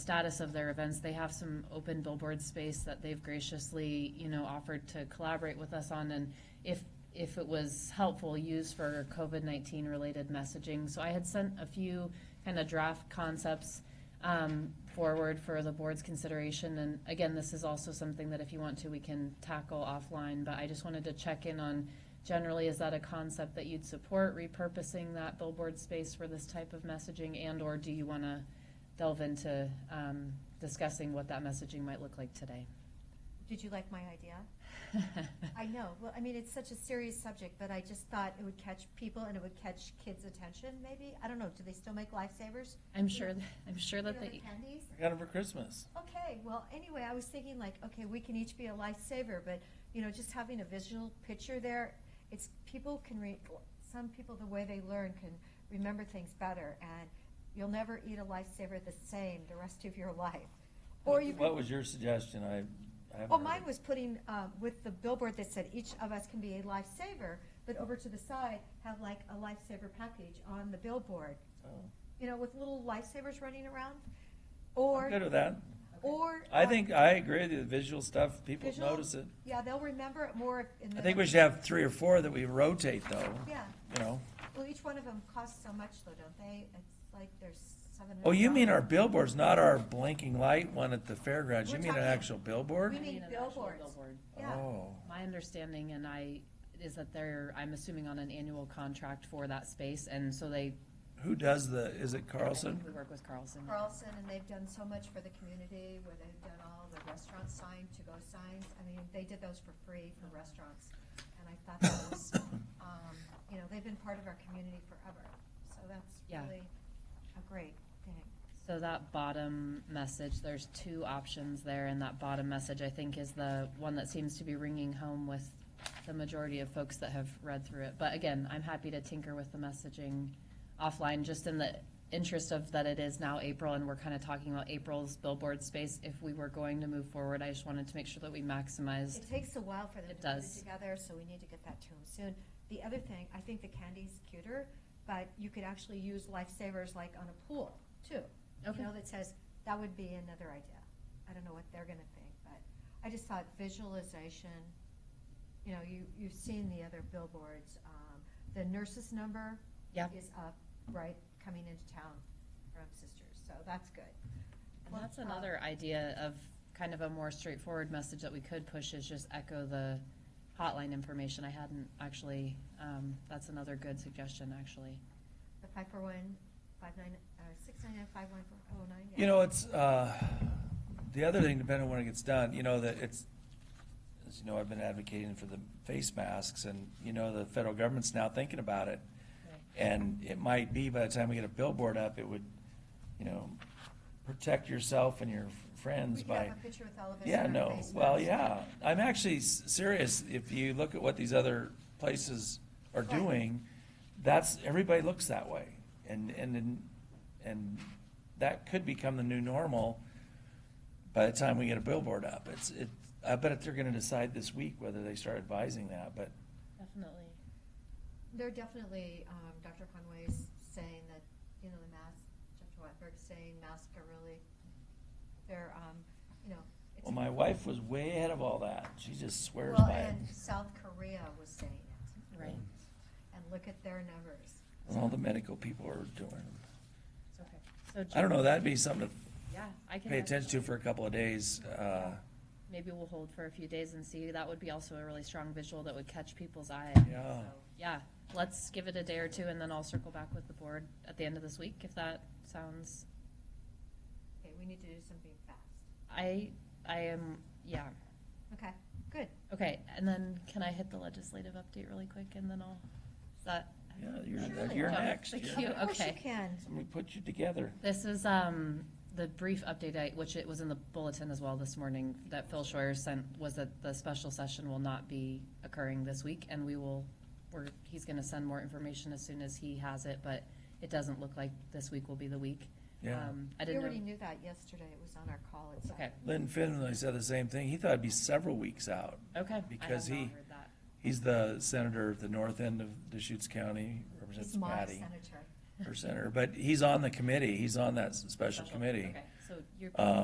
status of their events. They have some open billboard space that they've graciously, you know, offered to collaborate with us on and if, if it was helpful, use for COVID-19 related messaging. So I had sent a few kind of draft concepts um, forward for the board's consideration. And again, this is also something that if you want to, we can tackle offline, but I just wanted to check in on generally, is that a concept that you'd support, repurposing that billboard space for this type of messaging? And/or do you want to delve into um, discussing what that messaging might look like today? Did you like my idea? I know. Well, I mean, it's such a serious subject, but I just thought it would catch people and it would catch kids' attention, maybe. I don't know. Do they still make lifesavers? I'm sure, I'm sure that You know, the they, candies? I got them for Christmas. Okay, well, anyway, I was thinking like, okay, we can each be a lifesaver, but, you know, just having a visual picture there, it's, people can read, some people, the way they learn can remember things better, and you'll never eat a lifesaver the same the rest of your life. Or What you what can, was your suggestion? I, I haven't. well, heard mine it. was putting, um, with the billboard that said each of us can be a lifesaver, but over to the side, have like a lifesaver package on the billboard, Oh. you know, with little lifesavers running around, I'm good or, with that. or. I um, think, I agree with you, the visual stuff, people Visual? notice it. Yeah, they'll remember it more if- in the. I think we should have three or four that we rotate though, Yeah, you know? well, each one of them costs so much though, don't they? It's like there's seven. Oh, you mean our hundred billboards, not our blinking light one at the fairgrounds, you We're mean an talking- actual billboard? We need an actual billboards. billboard. dollars. Yeah, Oh, My understanding, and I, is that they're, I'm assuming on an annual contract for that space, and so they. who does the, is it I Carlson? think We work with Carlson. Carlson, and they've done so much for the community where they've done all the restaurant sign, to-go signs. I mean, they did those for free for restaurants. And I thought that was, um, you know, they've been part of our community forever. So that's Yeah. really a great thing. So that bottom message, there's two options there, and that bottom message, I think, is the one that seems to be ringing home with the majority of folks that have read through it. But again, I'm happy to tinker with the messaging offline, just in the interest of that it is now April, and we're kind of talking about April's billboard space. If we were going to move forward, I just wanted to make sure that we maximized, It takes a while for them It to put it does. together, so we need to get that to them soon. The other thing, I think the candy's cuter, but you could actually use lifesavers like on a pool too. Okay. You know, that says, that would be another idea. I don't know what they're gonna think, but I just thought visualization, you know, you, you've seen the other billboards. Um, The nurses number yeah. is up, right, coming into town from Sisters, so that's good. And that's Well, uh, another idea of kind of a more straightforward message that we could push is just echo the hotline information. I hadn't actually, um, that's another good suggestion, actually. The five four one, five nine, uh, six nine nine, five one four oh nine. You know, it's, uh, the other thing, depending on when it gets done, you know, that it's, as you know, I've been advocating for the face masks and, you know, the federal government's now thinking about it. And it might be by the time we get a billboard up, it would, you know, protect yourself and your friends We could by. have a picture with all of us Yeah, in our no, face well, masks. yeah. I'm actually s- serious. If you look at what these other places are Right. doing, that's, everybody looks that way. And, and, and that could become the new normal by the time we get a billboard up. It's, it, I bet they're gonna decide this week whether they start advising that, but Definitely. They're definitely, um, Dr. Conway's saying that, you know, the masks, Dr. Whitberg's saying masks are really, they're, um, you know. it's- Well, my wife was way ahead of all that. She just swears Well, by it. and South Korea was saying it, Right. and look at their numbers. And all the medical people are doing. it. It's okay. So I don't know, Jim- that'd be something Yeah, I to can. pay attention to for a couple of days. Uh, Maybe we'll hold for a few days and see. That would be also a really strong visual that would catch people's eye. yeah. Yeah, let's give it a day or two and then I'll circle back with the board at the end of this week if that sounds Okay, we need to do something fast. I, I am, yeah. Okay, good. Okay, and then can I hit the legislative update really quick and then I'll, is that? Yeah, you're, Surely. you're Oh, next. thank yeah. you. Of course you okay. can. Somebody put you together. This is, um, the brief update, I- which it was in the bulletin as well this morning, that Phil Schreier sent, was that the special session will not be occurring this week, and we will, we're, he's gonna send more information as soon as he has it, but it doesn't look like this week will be the week. Yeah. Um, I We didn't already know, knew that yesterday. It was on our call. It's- uh, okay, Lynn Finley said the same thing. He thought it'd be several weeks out. okay. I have Because not he- heard that. He's the senator at the north end of Deschutes County, It's represents my Patty, senator. her senator, but he's on the committee. He's on that s- special committee. Okay, so you're. Um,